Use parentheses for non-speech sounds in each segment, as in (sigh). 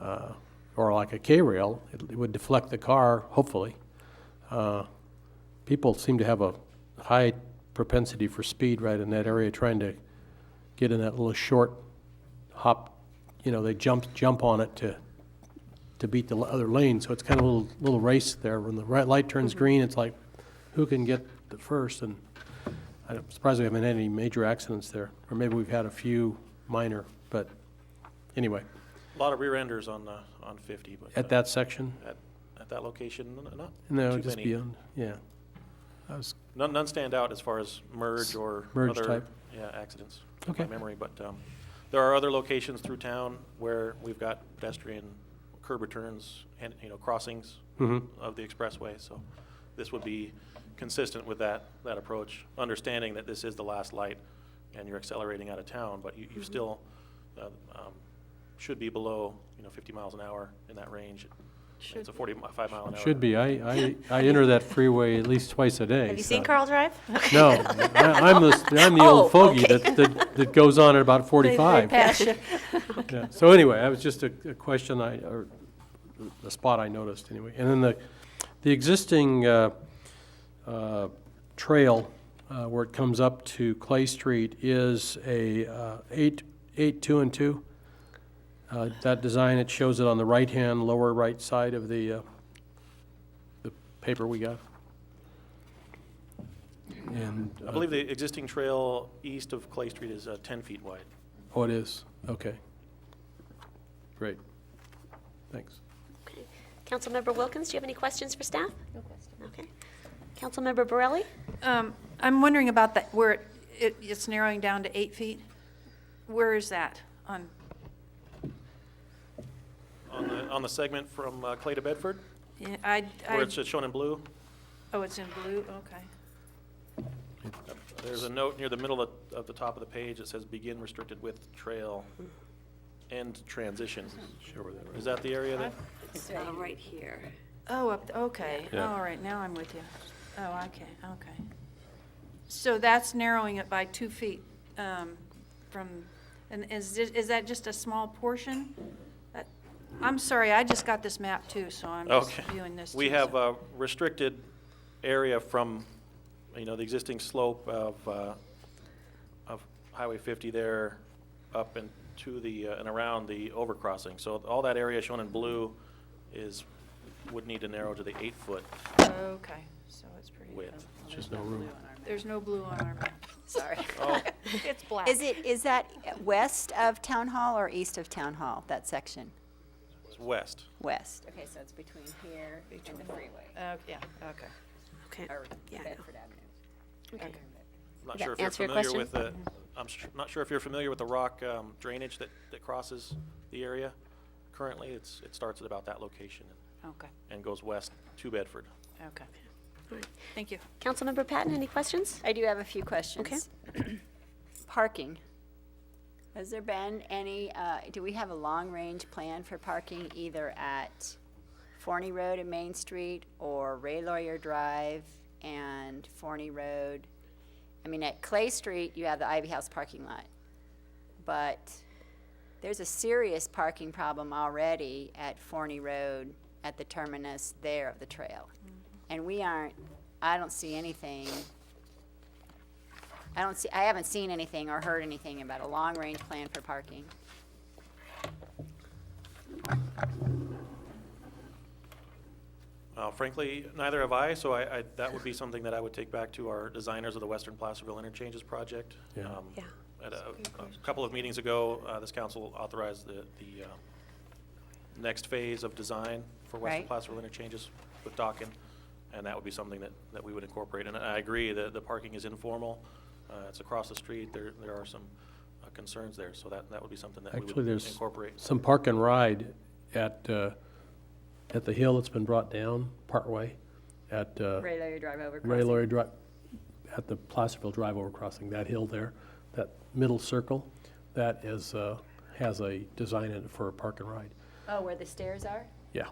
uh, or like a K-rail, it it would deflect the car, hopefully. Uh, People seem to have a high propensity for speed right in that area, trying to get in that little short hop, you know, they jump, jump on it to, to beat the other lane, so it's kind of a little, little race there. When the right light turns green, it's like, who can get the first? And I'm surprised we haven't had any major accidents there, or maybe we've had a few minor, but anyway, A lot of rear enders on, uh, on 50, but. uh, at that section, At, at that location, n- not no, too just many. beyond, yeah. I was- None, none stand out as far as merge or Merge other. type. Yeah, accidents. in my Okay. memory, but, um, there are other locations through town where we've got pedestrian curb returns and, you know, crossings Mhm. of the expressway, so this would be consistent with that, that approach, understanding that this is the last light and you're accelerating out of town, but you, Mm-hmm. you still, uh, um, should be below, you know, fifty miles an hour in that range. Should It's a forty-five mile an hour. Should be, I, I, I enter that freeway at least twice a day. Have you so- seen Carl Drive? (laughs) No, I, I'm the, I'm the Oh, old fogey okay. that, that, that goes on at about forty-five. (laughs) Yeah, so anyway, that was just a, a question I, or a spot I noticed anyway. And then the, the existing, uh, uh, trail, uh, where it comes up to Clay Street is a, uh, eight, eight, two and two. Uh, that design, it shows it on the right-hand, lower right side of the, uh, the paper we got. And, I uh, believe the existing trail east of Clay Street is uh, 10 feet wide. oh, it is, okay. Great, thanks. Okay. Councilmember Wilkins, do you have any questions for staff? No questions. Okay. Councilmember Borelli? Um, I'm wondering about that, where it- it, it's narrowing down to eight feet. Where is that on, On the, on the segment from uh, Clay to Bedford, yeah, I, where I, it's shown in blue, oh, it's in blue, okay. there's a note near the middle of, of the top of the page that says begin restricted width trail, end transition. Sure where that Is that the area that, Right here. Oh, up, okay, Yeah. all right, now I'm with you. Oh, okay, okay. So that's narrowing it by two feet, um, from, and is, thi- is that just a small portion? That- I'm sorry, I just got this map too, so I'm just okay. viewing this. We too, have so- a restricted area from, you know, the existing slope of, uh, of Highway 50 there up and to the, uh, and around the overcrossing. So all that area shown in blue is, would need to narrow to the eight-foot Okay, so it's pretty. width. Just no room. There's no blue on (laughs) our map. Sorry. Oh. (laughs) It's black. Is it, is that west of Town Hall or east of Town Hall, that section? It's west. West. Okay, so it's between here and the freeway, Oh, yeah, okay. Okay. or Yeah, I know. Bedford Avenue. Okay. I'm Not Does sure if that you're answer your familiar with the, question? I'm s- not sure if you're familiar with the rock um, drainage that, that crosses the area. Currently, it's, it starts at about that location and- Okay, and goes west to Bedford. okay. All right. Thank you. Councilmember Patton, any questions? I do have a few questions. (clears throat) Parking. Has there been any, uh, do we have a long-range plan for parking either at Forney Road and Main Street or Ray Lawyer Drive and Forney Road? I mean, at Clay Street, you have the Ivy House parking lot. But there's a serious parking problem already at Forney Road at the terminus there of the trail. And we aren't, I don't see anything I don't see, I haven't seen anything or heard anything about a long-range plan for parking. Uh, Frankly, neither have I, so I, I- that would be something that I would take back to our designers of the Western Placerville Interchanges Project. Yeah. Um, Yeah. At a a couple of meetings ago, uh, this council authorized the, the uh, next phase of design for Western Right. Placerville Interchanges with Dockin, and that would be something that, that we would incorporate. And I agree, that the parking is informal, uh, it's across the street, there, there are some uh, concerns there, so that, that would be something that we Actually, would there's incorporate. some park and ride at, uh, at the hill that's been brought down partway, at uh, Ray Lawyer Drive over Ray Laurie Drive, at the Placerville Drive over crossing, that hill there, that middle circle, that is, uh, has a design in it for a park and ride. Oh, where the stairs are? Yeah.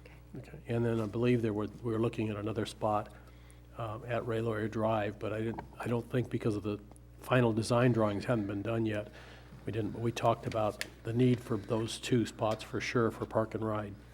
Okay. Okay. And then I believe there were, we were looking at another spot um, at Ray Lawyer Drive, but I didn't, I don't think because of the final design drawings hadn't been done yet, we didn't, but we talked about the need for those two spots for sure for park and ride.